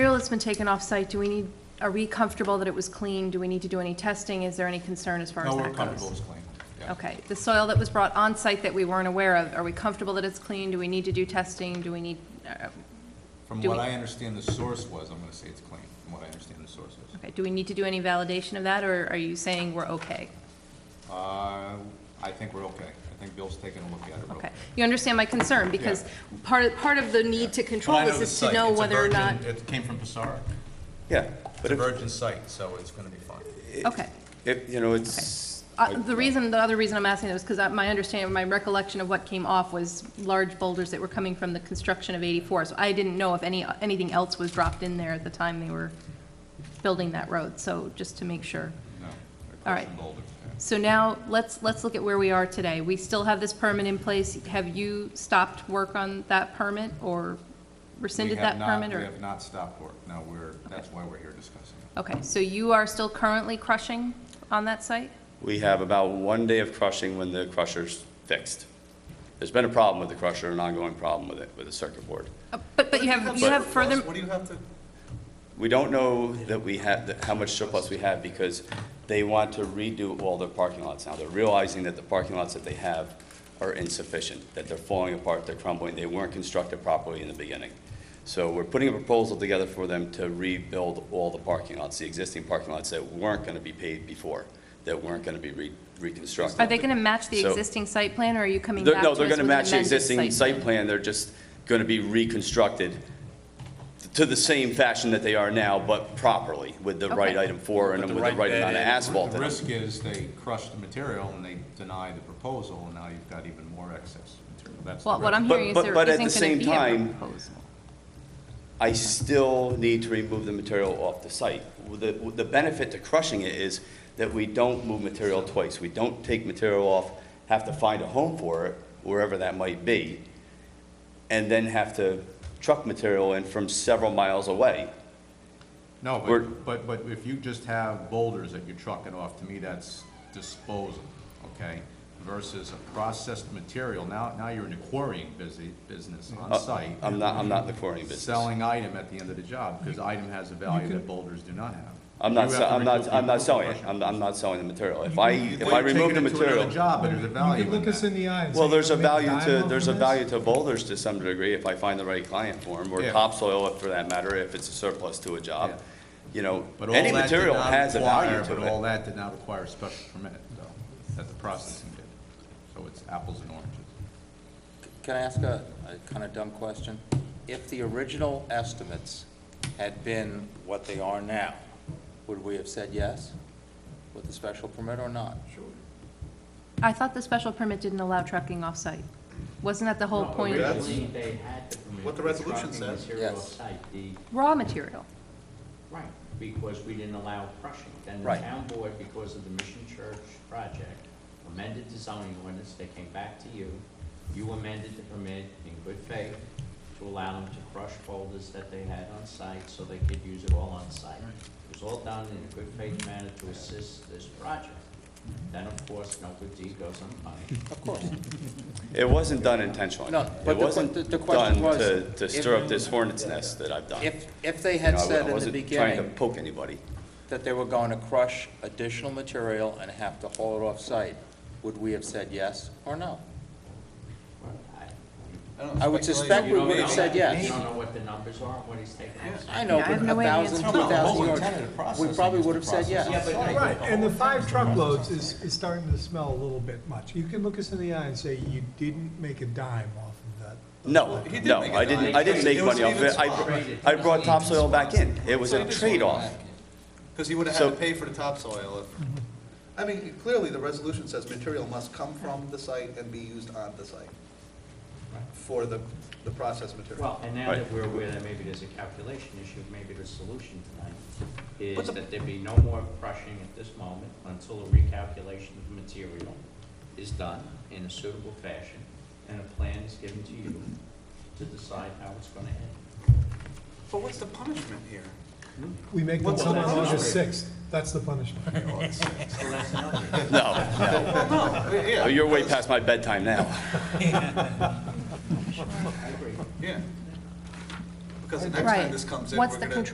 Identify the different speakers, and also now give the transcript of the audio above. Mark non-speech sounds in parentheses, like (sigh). Speaker 1: material that's been taken off-site, do we need, are we comfortable that it was clean? Do we need to do any testing? Is there any concern as far as
Speaker 2: No,
Speaker 1: that goes?
Speaker 2: we're comfortable it's clean. Yeah.
Speaker 1: Okay, the soil that was brought on-site that we weren't aware of, are we comfortable that it's clean? Do we need to do testing? Do we need, uh,
Speaker 2: From
Speaker 1: Do
Speaker 2: what
Speaker 1: we-
Speaker 2: I understand the source was, I'm gonna say it's clean, from what I understand the source is.
Speaker 1: okay, do we need to do any validation of that, or are you saying we're okay?
Speaker 2: Uh, I think we're okay. I think Bill's taking a look at it real
Speaker 1: Okay,
Speaker 2: quick.
Speaker 1: you understand my concern, because part, of- part of the need to control
Speaker 2: But I know
Speaker 1: this
Speaker 2: the
Speaker 1: is to
Speaker 2: site.
Speaker 1: know
Speaker 2: It's a
Speaker 1: whether or not,
Speaker 2: virgin- It came from Passaic.
Speaker 3: Yeah,
Speaker 2: It's
Speaker 3: but
Speaker 2: a
Speaker 3: if,
Speaker 2: virgin site, so it's gonna be fine.
Speaker 1: okay.
Speaker 3: if, you know, it's.
Speaker 1: Uh, The reason, the other reason I'm asking that was because my understanding, my recollection of what came off was large boulders that were coming from the construction of 84, so I didn't know if any, anything else was dropped in there at the time they were building that road, so just to make sure.
Speaker 2: No.
Speaker 1: All right.
Speaker 2: Across from Boulder, yeah.
Speaker 1: So now, let's, let's look at where we are today. We still have this permit in place. Have you stopped work on that permit, or rescinded
Speaker 2: We
Speaker 1: that
Speaker 2: have not-
Speaker 1: permit,
Speaker 2: We
Speaker 1: or?
Speaker 2: have not stopped work. No, we're, that's why we're here discussing it.
Speaker 1: Okay, so you are still currently crushing on that site?
Speaker 3: We have about one day of crushing when the crusher's fixed. There's been a problem with the crusher, an ongoing problem with it, with the circuit board.
Speaker 1: Uh, But, but you have, you have further,
Speaker 2: What do you have to?
Speaker 3: We don't know that we have, that- how much surplus we have because they want to redo all their parking lots now. They're realizing that the parking lots that they have are insufficient, that they're falling apart, they're crumbling, they weren't constructed properly in the beginning. So we're putting a proposal together for them to rebuild all the parking lots, the existing parking lots that weren't going to be paved before, that weren't going to be re- reconstructed.
Speaker 1: are they going to match the
Speaker 3: So-
Speaker 1: existing site plan, or are you coming
Speaker 3: They're-
Speaker 1: back to
Speaker 3: No,
Speaker 1: us
Speaker 3: they're
Speaker 1: with
Speaker 3: gonna
Speaker 1: an
Speaker 3: match the
Speaker 1: amended
Speaker 3: existing
Speaker 1: site
Speaker 3: site plan, they're just gonna be reconstructed to the same fashion that they are now, but properly, with the right
Speaker 1: Okay.
Speaker 3: item for and with the right amount of asphalt
Speaker 2: The
Speaker 3: in it.
Speaker 2: risk is they crush the material and they deny the proposal, and now you've got even more excess material. That's the
Speaker 1: Well, what
Speaker 2: risk.
Speaker 1: I'm
Speaker 3: But-
Speaker 1: hearing is
Speaker 3: but-
Speaker 1: there
Speaker 3: but at the
Speaker 1: isn't going
Speaker 3: same
Speaker 1: to be a
Speaker 3: time-
Speaker 1: proposal.
Speaker 3: I still need to remove the material off the site. The, the benefit to crushing it is that we don't move material twice. We don't take material off, have to find a home for it, wherever that might be, and then have to truck material in from several miles away.
Speaker 2: No,
Speaker 3: we're-
Speaker 2: but, but, but if you just have boulders that you're trucking off, to me, that's disposal, okay? Versus a processed material. Now, now you're in a quarrying busy, business on site.
Speaker 3: Uh, I'm not, I'm not in the quarry business.
Speaker 2: Selling item at the end of the job, because item has a value that boulders do not have.
Speaker 3: I'm not,
Speaker 2: You
Speaker 3: se-
Speaker 2: have to
Speaker 3: I'm not,
Speaker 2: remove
Speaker 3: I'm
Speaker 2: people
Speaker 3: not
Speaker 2: from
Speaker 3: selling it,
Speaker 2: crushing.
Speaker 3: I'm, I'm not selling the material. If I, if
Speaker 2: Well,
Speaker 3: I
Speaker 2: you're
Speaker 3: remove the
Speaker 2: taking it to another
Speaker 3: material,
Speaker 2: Job, but there's a value
Speaker 4: You
Speaker 2: in
Speaker 4: could look us
Speaker 2: that.
Speaker 4: in the eye and say.
Speaker 3: well, there's a
Speaker 4: "You're gonna make
Speaker 3: value to,
Speaker 4: dime
Speaker 3: there's
Speaker 4: off
Speaker 3: a
Speaker 4: of
Speaker 3: value
Speaker 4: this?"
Speaker 3: to boulders to some degree if I find the right client for them, or
Speaker 2: Yeah.
Speaker 3: topsoil if- for that matter, if it's a surplus to a
Speaker 2: Yeah.
Speaker 3: job. You know,
Speaker 2: But all
Speaker 3: any
Speaker 2: that did
Speaker 3: material
Speaker 2: not
Speaker 3: has a value
Speaker 2: require- But all
Speaker 3: to it.
Speaker 2: that did not require a special permit, though, that the processing did. So it's apples and oranges.
Speaker 5: Can I ask a, a kind of dumb question? If the original estimates had been what they are now, would we have said yes with the special permit or not?
Speaker 1: I thought the special permit didn't allow trucking off-site. Wasn't that the whole point?
Speaker 6: Originally, they had to permit.
Speaker 7: what the resolution
Speaker 6: trucking
Speaker 7: says.
Speaker 6: material
Speaker 5: Yes.
Speaker 6: off-site, the-
Speaker 1: Raw material.
Speaker 6: Right, because we didn't allow crushing. Then the
Speaker 5: Right.
Speaker 6: town board, because of the Mission Church project, amended the zoning ordinance, they came back to you. You amended the permit in good faith to allow them to crush boulders that they had on site so they could use it all on site. It was all done in a good faith manner to assist this project. Then, of course, no good deed goes unpunished.
Speaker 5: Of course.
Speaker 3: It wasn't done intentionally.
Speaker 5: No, but the
Speaker 3: It
Speaker 5: que-
Speaker 3: wasn't
Speaker 5: the- the question
Speaker 3: done
Speaker 5: was
Speaker 3: to, to
Speaker 5: if-
Speaker 3: stir up this hornet's nest that I've done.
Speaker 5: If, if they
Speaker 3: You know,
Speaker 5: had
Speaker 3: I wa-
Speaker 5: said
Speaker 3: I
Speaker 5: in the
Speaker 3: wasn't trying to
Speaker 5: beginning
Speaker 3: poke anybody.
Speaker 5: that they were going to crush additional material and have to haul it off-site, would we have said yes or no? I would suspect (laughs) we
Speaker 6: You don't
Speaker 5: would have
Speaker 6: know.
Speaker 5: said
Speaker 6: You
Speaker 5: yes.
Speaker 6: don't know what the numbers are, and what he's taking off.
Speaker 5: I know,
Speaker 1: Yeah, I
Speaker 5: but
Speaker 1: have no
Speaker 5: a
Speaker 1: way of
Speaker 5: thousand, two
Speaker 1: answering that.
Speaker 5: thousand
Speaker 2: Well,
Speaker 5: yards,
Speaker 2: the whole intent of the
Speaker 5: we probably
Speaker 2: process
Speaker 5: would have
Speaker 2: is
Speaker 5: said
Speaker 2: the
Speaker 5: yes.
Speaker 4: Right, and the five truckloads is, is starting to smell a little bit much. You can look us in the eye and say, you didn't make a dime off of that.
Speaker 3: No,
Speaker 2: He did
Speaker 3: no,
Speaker 2: make a
Speaker 3: I didn't, I didn't
Speaker 2: dime.
Speaker 3: make
Speaker 2: It was
Speaker 3: money off
Speaker 2: even
Speaker 3: it. I,
Speaker 2: swap.
Speaker 3: br- I brought topsoil back in. It was a trade-off.
Speaker 7: Because he would have
Speaker 3: So-
Speaker 7: had to pay for the topsoil if, I mean, clearly, the resolution says material must come from the site and be used on the site for the, the processed material.
Speaker 6: Well, and now that
Speaker 3: Right.
Speaker 6: we're aware that maybe there's a calculation issue, maybe the solution tonight is
Speaker 7: But the-
Speaker 6: that there be no more crushing at this moment until a recalculation of the material is done in a suitable fashion, and a plan is given to you to decide how it's gonna end.
Speaker 7: But what's the punishment here?
Speaker 4: We make them
Speaker 7: What's
Speaker 4: come
Speaker 6: the
Speaker 4: on
Speaker 6: punishment?
Speaker 4: August sixth, that's the punishment.
Speaker 6: So that's another.
Speaker 3: No, no.
Speaker 7: Yeah.
Speaker 3: Oh, You're way past my bedtime now.
Speaker 7: Yeah. Because the next
Speaker 1: Right.
Speaker 7: time this comes in, we're
Speaker 1: What's
Speaker 7: gonna.
Speaker 1: the